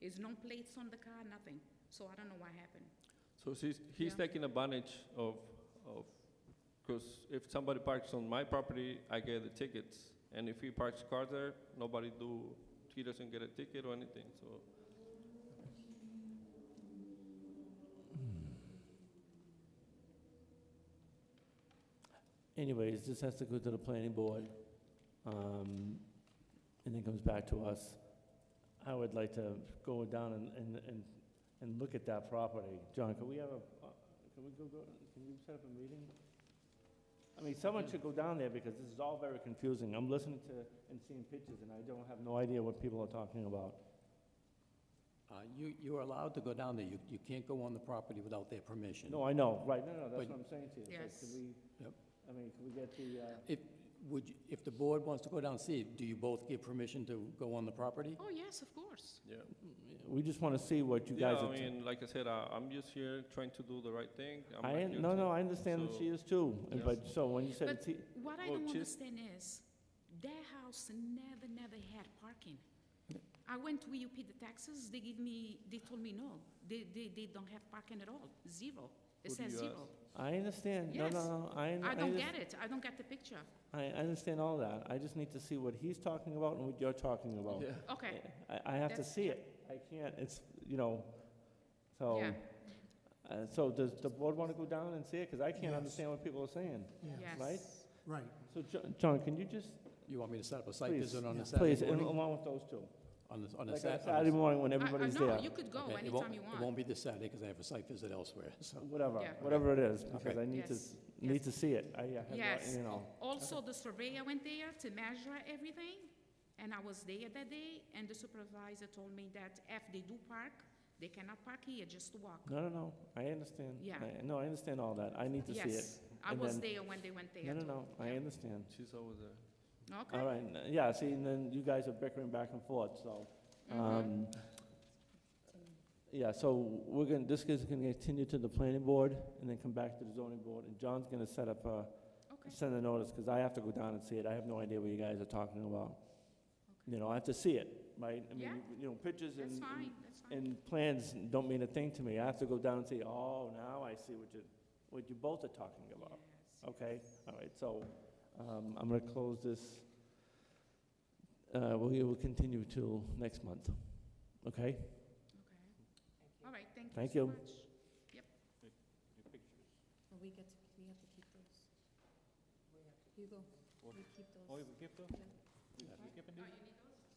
There's no plates on the car, nothing. So I don't know what happened. So she's, he's Yeah. taking advantage of, of, because if somebody parks on my property, I get the tickets. And if he parks car there, nobody do, he doesn't get a ticket or anything, so. Anyways, this has to go to the planning board, um, and then comes back to us. I would like to go down and, and, and, and look at that property. John, can we have a, uh, can we go, go, can you set up a meeting? I mean, someone should go down there because this is all very confusing. I'm listening to and seeing pictures and I don't have no idea what people are talking about. Uh, You, you are allowed to go down there. You, you can't go on the property without their permission. No, I know, right, no, no, that's But- what I'm saying to you. Like, Yes. Can we, Yep. I mean, can we get the, uh, If, would, you- if the board wants to go down and see it, do you both give permission to go on the property? Oh, yes, of course. Yeah. we just wanna see what you Yeah, guys I are. t- mean, like I said, I, I'm just here trying to do the right thing. I'm I, not un- here no, to- no, I understand that so- she is too, and Yes. but, so when you said But- it's, he- What I Well, don't just- understand is their house never, never had parking. I went to EUP the taxes, they give me, they told me no, they, they, they don't have parking at all, zero. It Who do says you zero. I understand, no, Yes. no, no, I, un- I don't just- get it, I don't get the picture. I, I understand all that, I just need to see what he's talking about and what you're talking about. Yeah. Okay, I, I have to That's- see it, I can't, it's, you know, so, Oh. yeah, uh, so does the board wanna go down and see it, cause I can't Yes. understand what people are saying. right? yes. Right. So, Jo- John, can you just, You want me to set up a site please, visit on the please, Saturday and morning? along with those two, On the, on the like on Sat- Saturday on morning when I- I- everybody's No, there, you could the- go okay, it Oh, anytime won't- you It won't want. be this Saturday because I have a site visit elsewhere, so. whatever, Yeah. whatever it is, because I need to, Yes. s- need Yes. to see it, I, I have, no- Yes. you know. Also, the surveyor went there to measure everything, and I was there that day, and the supervisor told me that if they do park, they cannot park here, just walk. No, no, no, I understand. Yeah. I- No, I understand all that, I need to see it. Yes, I and was then- there when they went there. No, no, too. no, I Yeah. understand. She's over there. All Okay, right, n- yeah, see, and then you guys are bickering back and forth, so. Mm-hmm. um, Yeah, so we're gonna, this is gonna continue to the planning board and then come back to the zoning board, and John's gonna set up a, okay, send a notice, because I have to go down and see it, I have no idea what you guys are talking about. You know, I have to see it, right? I mean, Yeah. you- You know, pictures that's and. and- fine, that's fine. And plans don't mean a thing to me. I have to go down and say, oh, now I see what you, what you both are talking about. Yes. Okay, all right, so um, I'm going to close this. Uh, We will continue till next month, okay? Okay. All right, thank you Thank so you. much. We get to, we have to keep those. Hugo, we keep Oh, we those. keep those? Yeah. We keep it?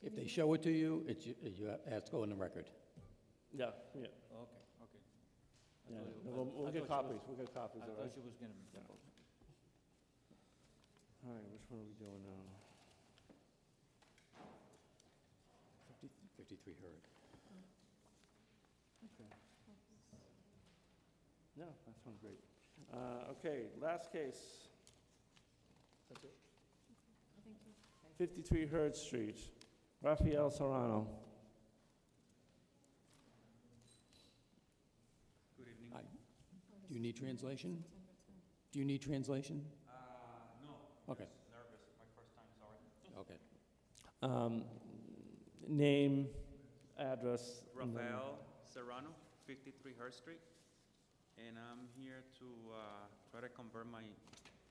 If they show it to you, it's, you- you have it has to go in the record. Yeah, yeah. Okay, okay. I yeah. thought you- No, I- We'll I we'll get thought you copies, we'll get copies, was- I all right? thought you was gonna. All right, which one are we doing now? 53 Hurd. No, that sounds great. Uh, Okay, last case. That's it? Thank you. 53 Hurd Street, Rafael Serrano. Good evening. Hi. Do you need translation? Do you need translation? Uh, no. Okay. Nervous, my first time, sorry. Okay. Um, Name, address. and then- Rafael Serrano, 53 Hurst Street, and I'm here to uh, try to convert my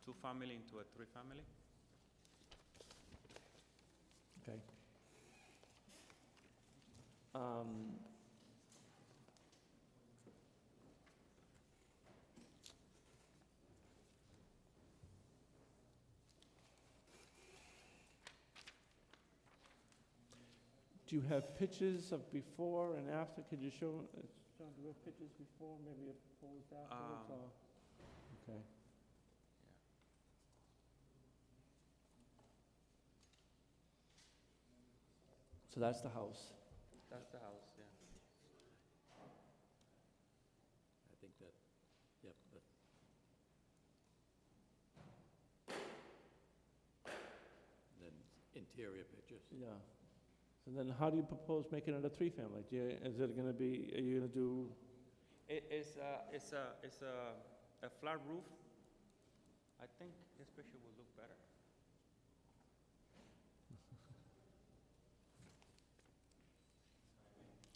two-family into a three-family. Okay. Um, Do you have pictures of before and after? Could you show, uh, John, do you have pictures before, maybe of posed afterwards, Um, or? Okay. So that's the house. That's the house, yeah. I think that, yep, that- Then interior pictures. Yeah. So then how do you propose making it a three-family? Do you, is it gonna be, are you gonna do, It- It's a, it's a, it's a, a flat roof. I think this picture will look better.